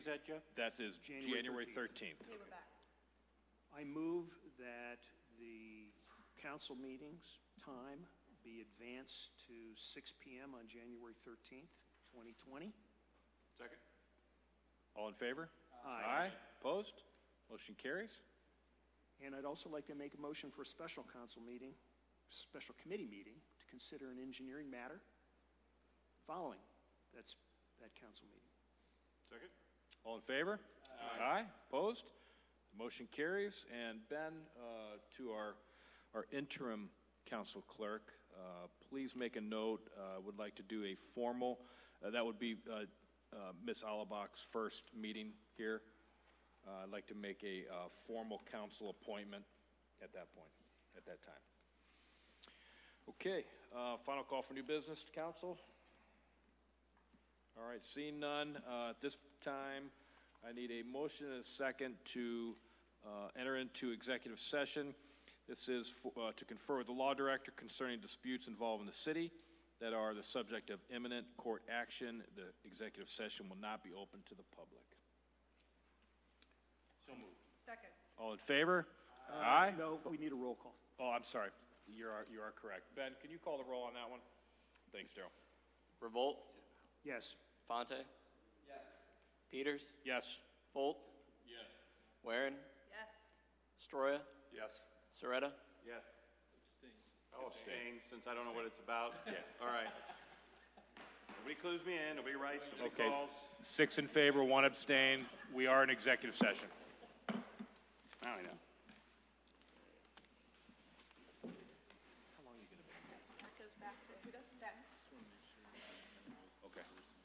Is that Jeff? That is January January 13th. 13th. I move that the council meetings time be advanced to 6 PM on January 13th, 2020. All in favor? Aye. Opposed? Motion carries. And I'd also like to make a motion for a special council meeting, special committee meeting, to consider an engineering matter following that's, that council meeting. All in favor? Aye. Opposed? Motion carries. And Ben, uh, to our, our interim council clerk, uh, please make a note, uh, would like to do a formal, uh, that would be uh, uh, Ms. Alabak's first meeting here. Uh, I'd like to make a uh, formal council appointment at that point, at that time. Okay, uh, final call for new business, council. All right, seeing none, uh, at this time, I need a motion and a second to uh, enter into executive session. This is for- uh, to confer with the law director concerning disputes involving the city that are the subject of imminent court action. The executive session will not be open to the public. Second. All in favor? Aye? No, we need a roll call. Oh, I'm sorry. You are, you are correct. Ben, can you call the roll on that one? Thanks, Daryl. Revolt, Yes. Fonte? Yes. Peters, Yes? Volt? Yes. Warren, Yes. Stroya, Yes. Soretta? Yes. I'll abstain, since I don't know what it's about. Yeah. All right. Nobody clues me in, nobody writes, nobody Okay. calls. Six in favor, one abstain. We are in executive session. Now I know.